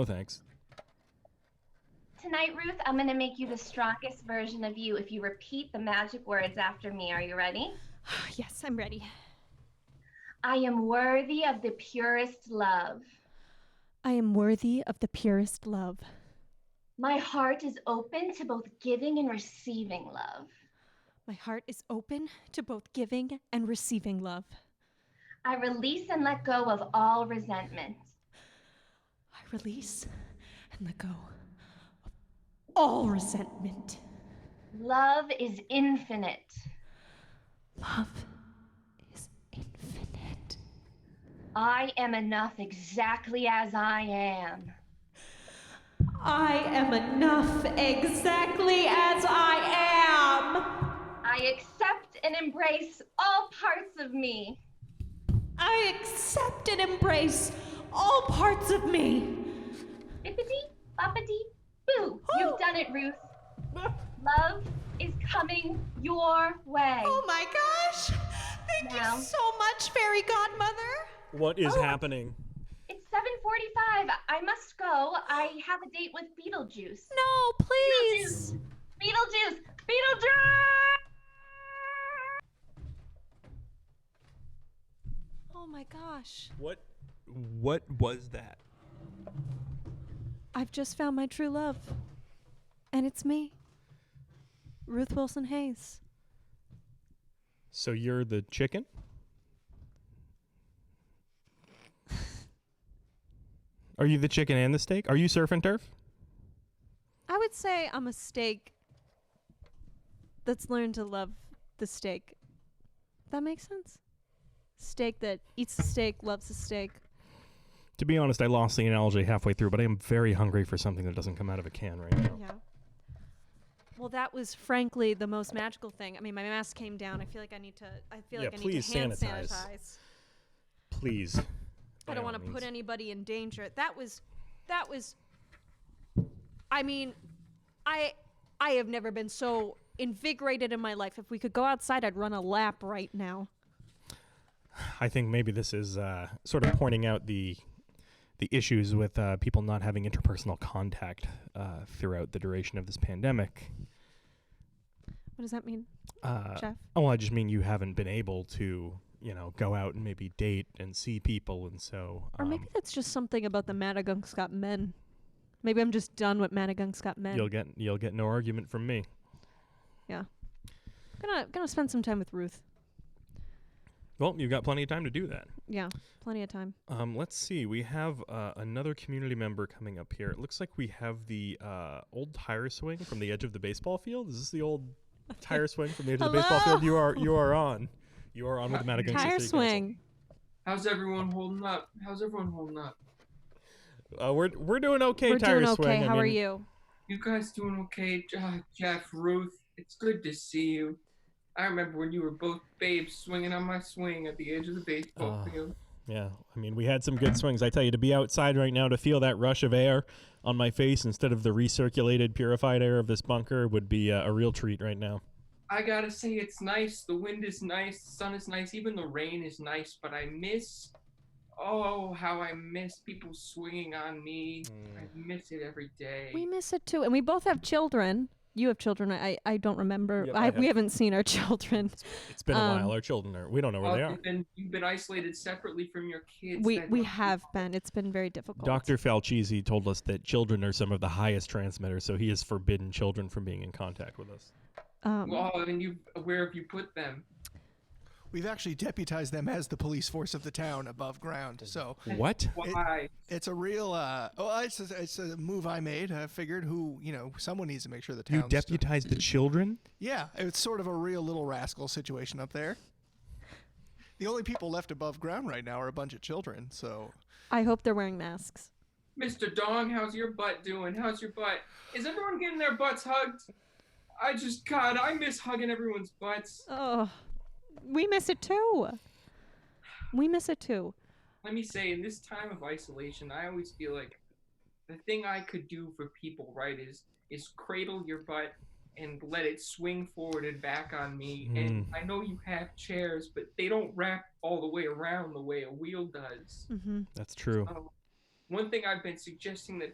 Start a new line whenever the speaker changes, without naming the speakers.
No Oh, thanks.
Tonight, Ruth, I'm going to make you the strongest version of you if you repeat the magic words after me. Are you ready?
yes, I'm ready.
I am worthy of the purest love.
I am worthy of the purest love.
My heart is open to both giving and receiving love.
My heart is open to both giving and receiving love.
I release and let go of all resentment.
I release and let go of all resentment.
Love is infinite.
Love is infinite.
I am enough exactly as I am.
I am enough exactly as I am.
I accept and embrace all parts of me.
I accept and embrace all parts of me.
Bippity, boppity, boo. You've done it, Ruth. Love is coming your way.
Oh my gosh! Thank
Wow.
you so much, Fairy Godmother.
What is
Oh.
happening?
It's 7:45. I must go. I have a date with Beetlejuice.
No, please.
Beetlejuice! Beetlejuice!
Oh my gosh.
What what was that?
I've just found my true love. And it's me, Ruth Wilson Hayes.
So you're the chicken? Are you the chicken and the steak? Are you surf and turf?
I would say I'm a steak that's learned to love the steak. That makes sense? Steak that eats the steak, loves the steak.
To be honest, I lost the analogy halfway through, but I am very hungry for something that doesn't come out of a can right now.
Yeah. Well, that was frankly the most magical thing. I mean, my mask came down. I feel like I need to. I feel
Yeah,
like I need
please
to hand
sanitize.
sanitize.
Please.
I don't want to put anybody in danger. That was, that was. I mean, I, I have never been so invigorated in my life. If we could go outside, I'd run a lap right now.
I think maybe this is uh, sort of pointing out the the issues with uh, people not having interpersonal contact uh, throughout the duration of this pandemic.
What does that mean,
Uh,
Jeff?
Oh, I just mean you haven't been able to, you know, go out and maybe date and see people, and so.
Or
um,
maybe that's just something about the Madagungscut men. Maybe I'm just done with Madagungscut men.
you'll get you'll get no argument from me.
Gonna gonna spend some time with Ruth.
Well, you've got plenty of time to do that.
Yeah, plenty of time.
Um, let's see. We have uh, another community member coming up here. It looks like we have the uh, old tire swing from the edge of the baseball field. Is this the old tire swing from the edge of the baseball field? You are you are on. You are on with the Madagungscut City
Tire
Council.
swing.
How's everyone holding up? How's everyone holding up?
Uh, we're we're doing okay.
We're
tire
doing okay.
swing. I
How are
mean,
you?
You guys doing okay? Ah, Jeff, Ruth, it's good to see you. I remember when you were both babes swinging on my swing at the edge of the baseball
Ah.
field.
Yeah, I mean, we had some good swings. I tell you, to be outside right now to feel that rush of air on my face instead of the recirculated, purified air of this bunker would be uh, a real treat right now.
I gotta say, it's nice. The wind is nice, the sun is nice, even the rain is nice, but I miss. Oh, how I miss people swinging on me. I miss it every day.
We miss it too, and we both have children. You have children. I I don't remember.
Yep, I
I,
have.
we haven't seen our children.
It's been a
Um,
while. Our children are. We don't know where
Oh,
they are.
you've, been, you've been isolated separately from your kids.
We
That
we
must be
have been. It's been very difficult.
Dr. Falchisi told us that children are some of the highest transmitters, so he has forbidden children from being in contact with us.
Um,
Well, and you, where have you put them?
We've actually deputized them as the police force of the town above ground. So
What?
Why?
it's a real, uh, oh, it's a, it's a move I made. I figured who, you know, someone needs to make sure the town.
You deputized the children?
yeah, it's sort of a real little rascal situation up there. The only people left above ground right now are a bunch of children. So
I hope they're wearing masks.
Mr. Dong, how's your butt doing? How's your butt? Is everyone getting their butts hugged? I just, God, I miss hugging everyone's butts.
Oh, we miss it too. We miss it too.
Let me say, in this time of isolation, I always feel like the thing I could do for people, right, is is cradle your butt and let it swing forward and back on me. And I know you have chairs, but they don't wrap all the way around the way a wheel does.
hmm
That's true.
Um, one thing I've been suggesting that